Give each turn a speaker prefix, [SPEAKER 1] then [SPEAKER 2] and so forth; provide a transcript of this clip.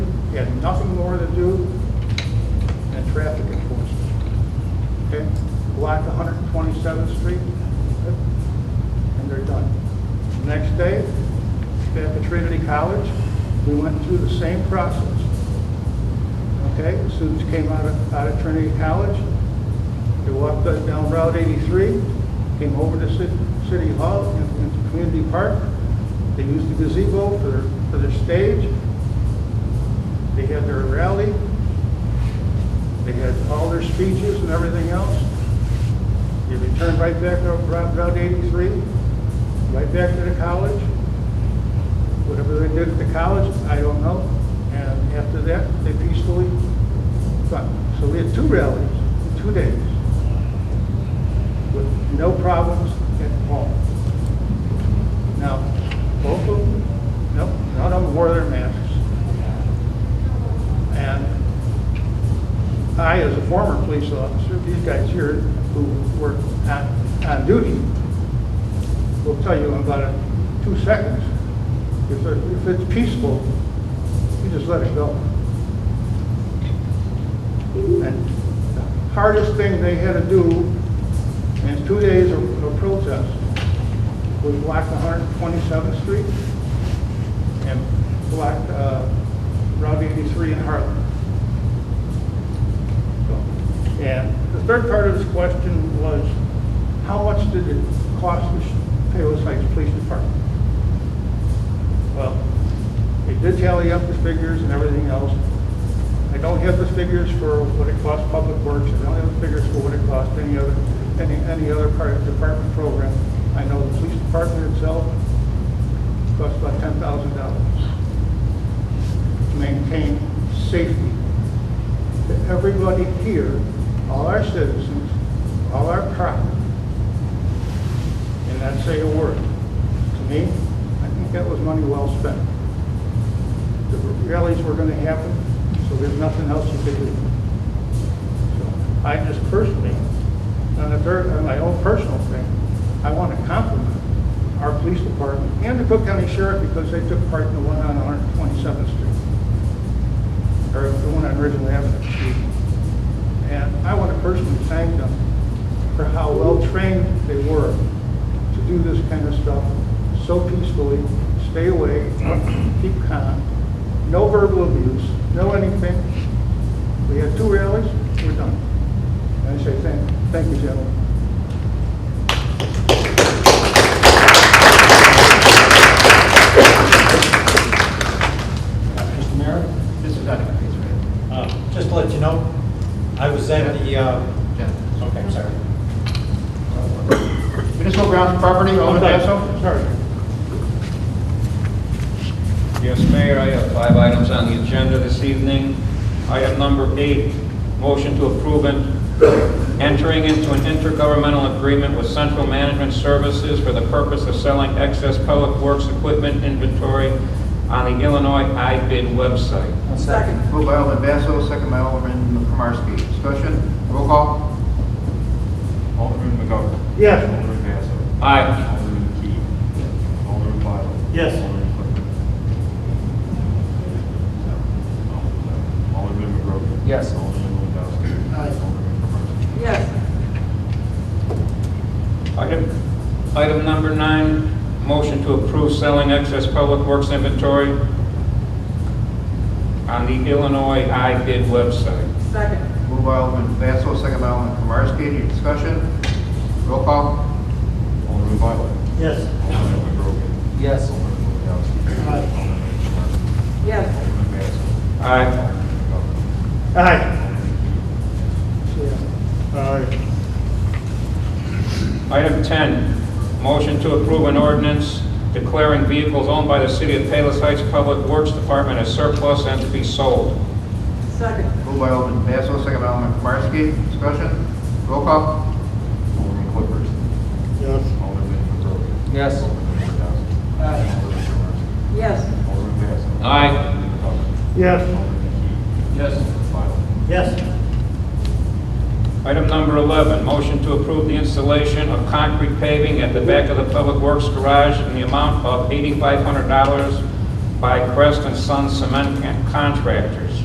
[SPEAKER 1] had nothing more to do than traffic enforcement. Okay? Block 127th Street, okay? and they're done. Next day, back at Trinity College, we went through the same process. Okay? Students came out of, out of Trinity College, they walked up down Route 83, came over to Ci- City Hall and and Community Park. They used the gazebo for their, for their stage. They had their rally. They had all their speeches and everything else. They returned right back to Route Route 83, right back to the college. Whatever they did at the college, I don't know. And after that, they peacefully but, so we had two rallies in two days with no problems at all. Now, both of them, no, none of them wore their masks. And I, as a former police officer, these guys here who were on, on duty, will tell you in about uh, two seconds, if, it- if it's peaceful, you just let it go. And the hardest thing they had to do in two days of of protest was block 127th Street and block uh, Route 83 in Harlem. So, And the third part of this question was, how much did it cost the Palos Heights Police Department? Well, they did tally up the figures and everything else. I don't have the figures for what it costs Public Works, I don't have the figures for what it costs any other, any, any other part of the department program. I know the police department itself costs about ten thousand dollars to maintain safety. To everybody here, all our citizens, all our property, and not say a word. To me, I think that was money well spent the rallies were going to happen, so there's nothing else you could do. So I just personally, on a third, on my own personal thing, I want to compliment our police department and the Cook County Sheriff because they took part in the one on 127th Street, or the one on Ridgeland Avenue. excuse me. And I want to personally thank them for how well-trained they were to do this kind of stuff so peacefully, stay away, keep calm, no verbal abuse, no anything. We had two rallies, we're done. And I say thank, thank you, gentlemen.
[SPEAKER 2] Mr. Mayor?
[SPEAKER 3] This is Dr. Pace,
[SPEAKER 2] Uh, Just to let you know, I was at the, uh,
[SPEAKER 3] right? Jeff.
[SPEAKER 2] okay, I'm sorry.
[SPEAKER 3] Municipal grounds property,
[SPEAKER 1] Oh,
[SPEAKER 3] owned
[SPEAKER 1] that's
[SPEAKER 3] by...
[SPEAKER 1] all? Sorry.
[SPEAKER 4] Yes, Mayor, I have five items on the agenda this evening. Item number eight, motion to approve and entering into an intergovernmental agreement with Central Management Services for the purpose of selling excess public works equipment inventory on the Illinois iBid website.
[SPEAKER 5] Second.
[SPEAKER 3] Moved by Alderman Basso, second by Alderman Kromarski. Discussion, roll call?
[SPEAKER 6] Alderman McGovern.
[SPEAKER 1] Yes.
[SPEAKER 6] Alderman Basso.
[SPEAKER 4] Aye.
[SPEAKER 6] Alderman Key. Alderman Violet.
[SPEAKER 1] Yes.
[SPEAKER 6] Alderman Clifford. Alderman McGovern.
[SPEAKER 3] Yes.
[SPEAKER 6] Alderman Lewandowski.
[SPEAKER 1] Aye.
[SPEAKER 6] Alderman Kromarski.
[SPEAKER 5] Yes.
[SPEAKER 4] Item, item number nine, motion to approve selling excess public works inventory on the Illinois iBid website.
[SPEAKER 5] Second.
[SPEAKER 3] Moved by Alderman Basso, second by Alderman Kromarski. Any discussion? Roll call?
[SPEAKER 6] Alderman Violet.
[SPEAKER 1] Yes.
[SPEAKER 6] Alderman McGovern.
[SPEAKER 3] Yes.
[SPEAKER 6] Alderman Lewandowski.
[SPEAKER 1] Aye.
[SPEAKER 6] Alderman Kromarski.
[SPEAKER 5] Yes.
[SPEAKER 6] Alderman Basso.
[SPEAKER 4] Aye.
[SPEAKER 6] Alderman McGovern.
[SPEAKER 1] Aye.
[SPEAKER 6] Alderman Key.
[SPEAKER 1] Aye.
[SPEAKER 4] Item 10, motion to approve an ordinance declaring vehicles owned by the City of Palos Heights Public Works Department as surplus and to be sold.
[SPEAKER 5] Second.
[SPEAKER 3] Moved by Alderman Basso, second by Alderman Kromarski. Discussion, roll call?
[SPEAKER 6] Alderman Clifford.
[SPEAKER 1] Yes.
[SPEAKER 6] Alderman McGovern.
[SPEAKER 3] Yes.
[SPEAKER 6] Alderman Lewandowski. Alderman Kromarski.
[SPEAKER 5] Yes.
[SPEAKER 6] Alderman Basso.
[SPEAKER 4] Aye.
[SPEAKER 6] Alderman McGovern.
[SPEAKER 1] Yes.
[SPEAKER 6] Alderman Key.
[SPEAKER 3] Yes.
[SPEAKER 6] Violet.
[SPEAKER 1] Yes.
[SPEAKER 4] Item number 11, motion to approve the installation of concrete paving at the back of the Public Works Garage in the amount of $8,500 by Crest and Son Cement Contractors.